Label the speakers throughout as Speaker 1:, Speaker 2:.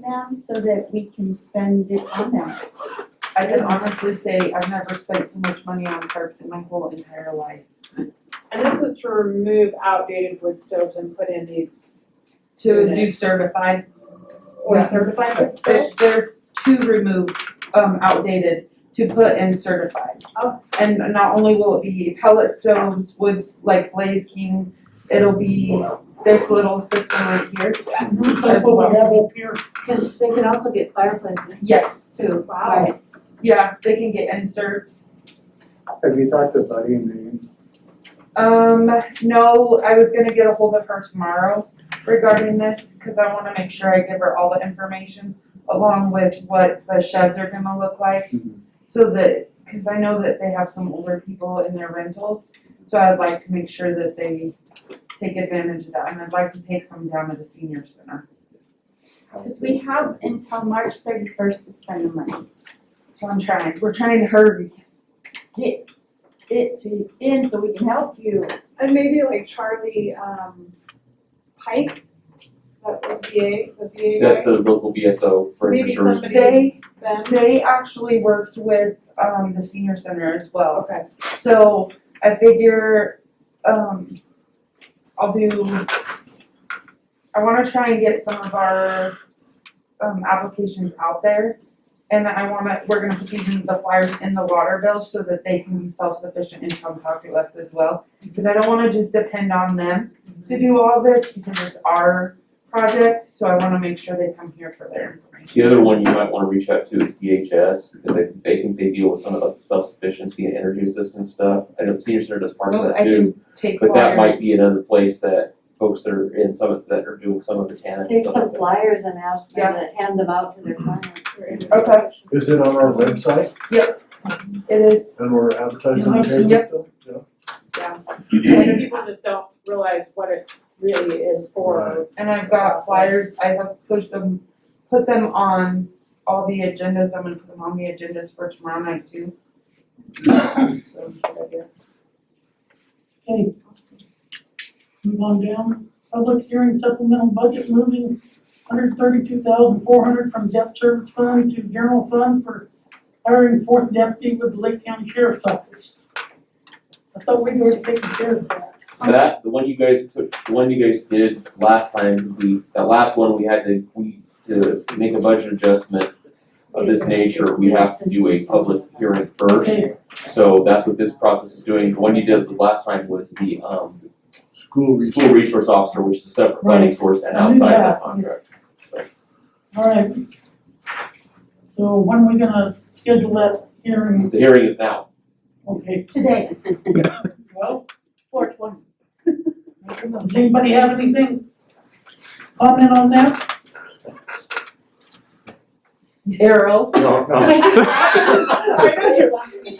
Speaker 1: them so that we can spend it on them.
Speaker 2: I can honestly say I've never spent so much money on tarps in my whole entire life.
Speaker 3: And this is to remove outdated wood stoves and put in these,
Speaker 2: To do
Speaker 3: Good.
Speaker 2: certified,
Speaker 3: or
Speaker 2: Yeah.
Speaker 3: certified wood
Speaker 2: they're,
Speaker 3: stoves?
Speaker 2: they're to remove, um, outdated, to put in certified.
Speaker 3: Oh.
Speaker 2: And not only will it be pellet stoves, woods like Blaze King, it'll be this little system right here.
Speaker 4: Like what we have up here,
Speaker 5: Can, they can also get fireplaces
Speaker 2: Yes,
Speaker 5: too.
Speaker 3: Wow.
Speaker 2: yeah, they can get inserts.
Speaker 6: Have you talked to Buddy and Megan?
Speaker 2: Um, no, I was gonna get a hold of her tomorrow regarding this, cause I wanna make sure I give her all the information along with what the sheds are gonna look like,
Speaker 6: Mhm.
Speaker 2: so that, cause I know that they have some older people in their rentals, so I'd like to make sure that they take advantage of that, and I'd like to take some down to the senior center.
Speaker 1: Because we have until March thirty-first to spend the money.
Speaker 2: So I'm trying, we're trying to hurry.
Speaker 1: Get it to in so we can help you.
Speaker 3: And maybe like Charlie, um, Pike, that would VA, the VA guy?
Speaker 7: That's the local BSO for
Speaker 3: Maybe
Speaker 7: insurance.
Speaker 3: somebody-
Speaker 2: They,
Speaker 3: Them,
Speaker 2: they actually worked with, um, the senior center as well.
Speaker 3: okay,
Speaker 2: So I figure, um, I'll do, I wanna try and get some of our, um, applications out there. And I wanna, we're gonna put these in the flyers in the water bill so that they can be self-sufficient and come talk to us as well. Cause I don't wanna just depend on them to do all this because it's our project, so I wanna make sure they come here for their information.
Speaker 7: The other one you might wanna reach out to is DHS, because they, they think they deal with some of the self-sufficiency and energy assistance stuff. I know senior center does parts of
Speaker 2: Well,
Speaker 7: that
Speaker 2: Oh, I
Speaker 7: too,
Speaker 2: can take
Speaker 7: but that might
Speaker 2: flyers.
Speaker 7: be another place that folks that are in some, of- that are doing some of the TANF and
Speaker 5: Take
Speaker 7: stuff like
Speaker 5: some
Speaker 7: that.
Speaker 5: flyers and ask them
Speaker 2: Yeah.
Speaker 5: to hand them out to their clients.
Speaker 3: we're in.
Speaker 2: Okay.
Speaker 4: is it on our website
Speaker 2: It is
Speaker 4: and we're advertising
Speaker 1: Yeah.
Speaker 4: the table?
Speaker 2: Yep.
Speaker 4: Yeah.
Speaker 3: And people just don't realize what it really is for.
Speaker 2: And I've got flyers, I have pushed them, put them on all the agendas, I'm gonna put them on the agendas for tomorrow night too. So, good idea.
Speaker 4: Okay. Move on down, public hearing supplemental budget moving hundred thirty-two thousand four hundred from debt service fund to general fund for hiring fourth deputy with the Lake County Sheriff's Office. I thought we were taking care of that.
Speaker 7: That, the one you guys took, the one you guys did last time, 'cause we, that last one, we had to, we, to make a budget adjustment of this nature, we have to do a public hearing first.
Speaker 4: Okay,
Speaker 7: So that's what this process is doing. The one you did the last time was the, um,
Speaker 4: School.
Speaker 7: school resource officer, which is a separate funding source and outside of that contract.
Speaker 4: All right. So when are we gonna schedule that hearing?
Speaker 7: The hearing is now.
Speaker 4: Okay,
Speaker 1: Today,
Speaker 4: well,
Speaker 1: four twenty.
Speaker 4: does anybody have anything? Comment on that?
Speaker 2: Daryl,
Speaker 6: No, no.
Speaker 3: I know you're laughing.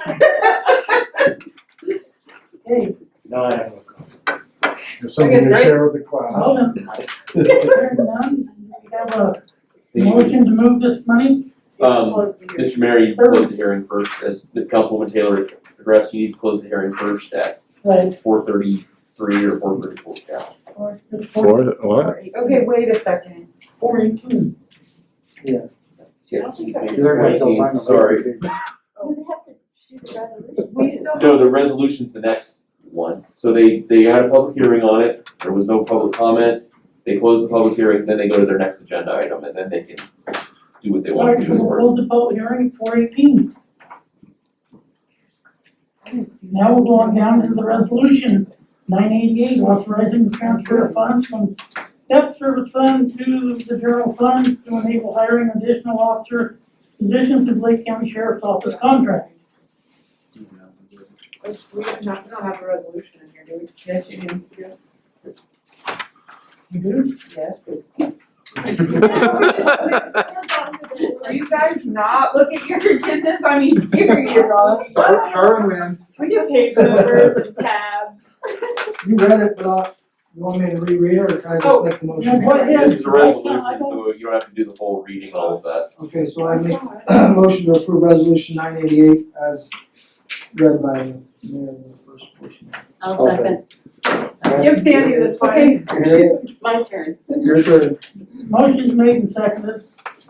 Speaker 4: Hey,
Speaker 6: No, I have no comment.
Speaker 4: There's
Speaker 2: something to
Speaker 4: share with the class. Hearing none, we have a
Speaker 7: The-
Speaker 4: motion to move this money?
Speaker 7: Um,
Speaker 4: Close the hearing.
Speaker 7: Mr. Mayor, you close the hearing first, as the Councilwoman Taylor addressed, you need to close the hearing first at
Speaker 4: Right,
Speaker 7: four thirty-three or four thirty-four, yeah.
Speaker 4: it's four,
Speaker 8: Four, what?
Speaker 2: okay, wait a second,
Speaker 4: four eighteen.
Speaker 7: Yeah,
Speaker 1: don't think I-
Speaker 7: maybe
Speaker 6: They're gonna have to line
Speaker 7: 19,
Speaker 6: up
Speaker 7: Sorry.
Speaker 6: everything.
Speaker 1: You have to do the resolution.
Speaker 2: we still
Speaker 7: No,
Speaker 2: have,
Speaker 7: the resolution's the next one. So they, they had a public hearing on it, there was no public comment. They close the public hearing, then they go to their next agenda item, and then they can do what they
Speaker 4: All
Speaker 7: want
Speaker 4: right,
Speaker 7: to do
Speaker 4: so
Speaker 7: as
Speaker 4: we'll
Speaker 7: far as.
Speaker 4: hold the vote hearing four eighteen.
Speaker 2: I didn't see that.
Speaker 4: Now we'll go on down to the resolution, nine eighty-eight, authorizing the transfer of funds from debt service fund to the general fund to enable hiring additional officer positions to Lake County Sheriff's Office contract.
Speaker 3: It's- We have not, we don't have a resolution in here, do we?
Speaker 2: Yes, you do,
Speaker 4: You do?
Speaker 2: yes. Are
Speaker 1: Are you-
Speaker 2: you guys not looking at your agendas? I mean, seriously.
Speaker 6: Darwin- Darwin wins.
Speaker 3: We get page numbers and tabs.
Speaker 9: You read it, but uh, you want me to reread it or can I just make the motion?
Speaker 4: Now, go ahead.
Speaker 7: This is a resolution, so you don't have to do the whole reading, all of that.
Speaker 9: Okay, so I make a motion to approve resolution nine eighty-eight as read by the mayor in the first portion.
Speaker 5: I'll second.
Speaker 3: Give Sandy this one.
Speaker 9: You're-
Speaker 1: My turn.
Speaker 9: You're good.
Speaker 4: Motion's made and seconded